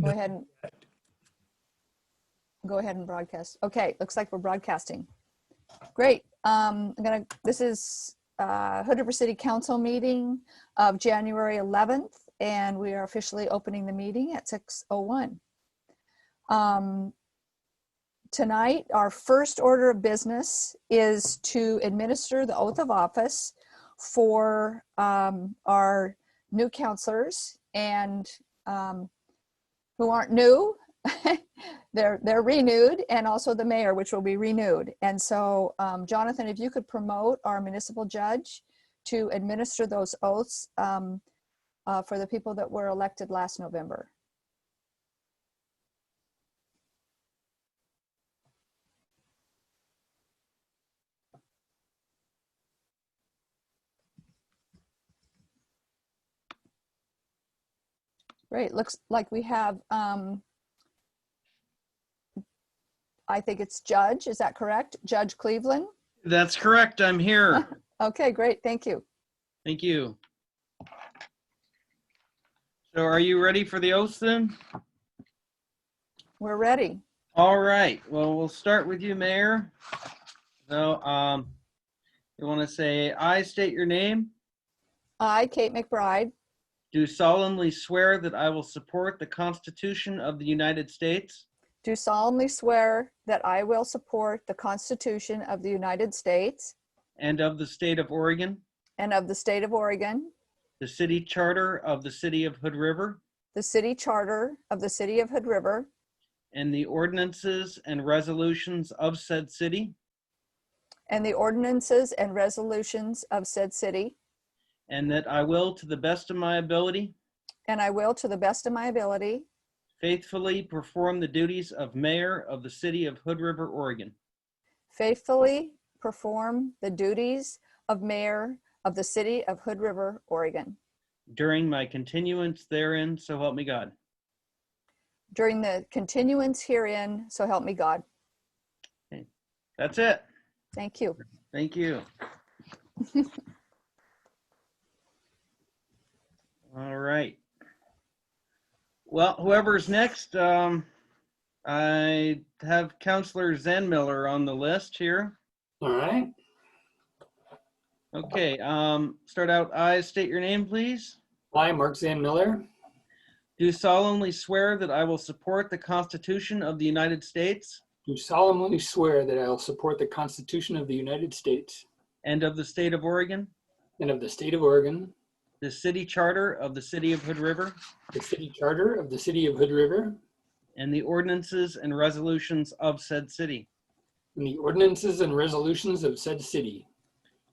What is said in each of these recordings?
Go ahead. and Go ahead and broadcast. Okay, looks like we're broadcasting. Great. Um, I'm gonna, this is, uh, Hood River City Council meeting of January 11th, and we are officially opening the meeting at 6:01. Um, Tonight, our first order of business is to administer the oath of office for, um, our new counselors and, um, who aren't new. they're they're renewed, and also the mayor, which will be renewed. And so, um, Jonathan, if you could promote our municipal judge to administer those oaths um, uh, for the people that were elected last November. Great. Looks like we have. Um, I think it's Judge. Is that correct, Judge Cleveland? That's correct. I'm here. Okay, great. Thank you. Thank you. So are you ready for the oath then? We're ready. All right. Well, we'll start with you, Mayor. So, um, you want to say, I state your name, I, Kate McBride, do solemnly swear that I will support the Constitution of the United States do solemnly swear that I will support the Constitution of the United States and of the state of Oregon, and of the State of Oregon, the city charter of the city of Hood River, the City Charter of the City of Hood River, and the ordinances and resolutions of said city, and the ordinances and resolutions of said city, and that I will, to the best of my ability, and I will, to the best of my ability, Faithfully perform the duties of mayor of the city of Hood River, Oregon, faithfully perform the duties of Mayor of the City of Hood River, Oregon, during my continuance therein, so help me God. during the continuance herein, so help me God. That's it. Thank you. Thank you. All right. Well, whoever's next, um, I have Counselor Zen Miller on the list here. All right. Okay, um, start out, I state your name, please. I, Mark Zan Miller, Do solemnly swear that I will support the Constitution of the United States do solemnly swear that I will support the Constitution of the United States and of the state of Oregon, and of the State of Oregon, the city charter of the city of Hood River, the City Charter of the City of Hood River, and the ordinances and resolutions of said city, and the ordinances and resolutions of said city,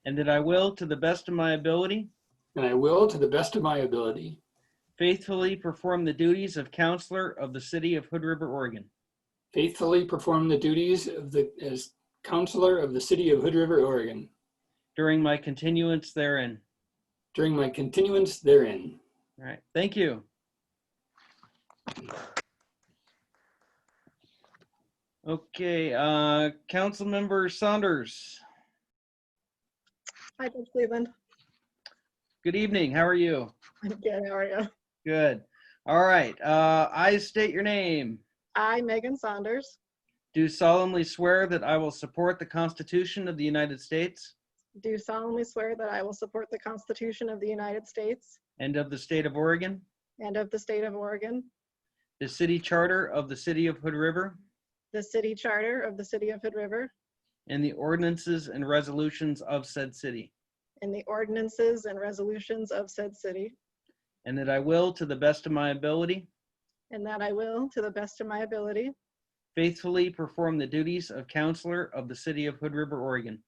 and that I will, to the best of my ability, and I will, to the best of my ability, faithfully perform the duties of counselor of the city of Hood River, Oregon, faithfully perform the duties of the as Counselor of the City of Hood River, Oregon, during my continuance therein. during my continuance therein. All right, thank you. Okay, uh, Councilmember Saunders, Hi, Judge Cleveland. good evening, how are you? I'm good. How are you? Good. All right. Uh, I state your name. I, Megan Saunders, Do solemnly swear that I will support the Constitution of the United States do solemnly swear that I will support the Constitution of the United States and of the state of Oregon, and of the state of Oregon, the city charter of the city of Hood River, the city charter of the city of Hood River, and the ordinances and resolutions of said city, and the ordinances and resolutions of said city, and that I will, to the best of my ability, and that I will, to the best of my ability, faithfully perform the duties of counselor of the city of Hood River, Oregon,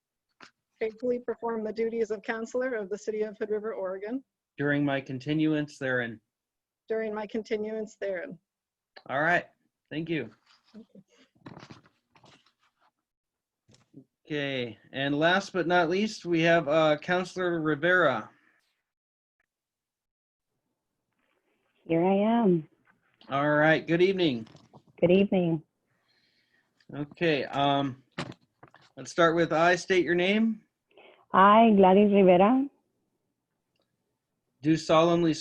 faithfully perform the duties of counselor of the city of Hood River, Oregon, during my continuance therein. during my continuance therein. All right, thank you. Okay, and last but not least, we have uh, Counselor Rivera. Here I am. All right, good evening. Good evening. Okay, um, let's start with I state your name. I, Gladys Rivera, Do solemnly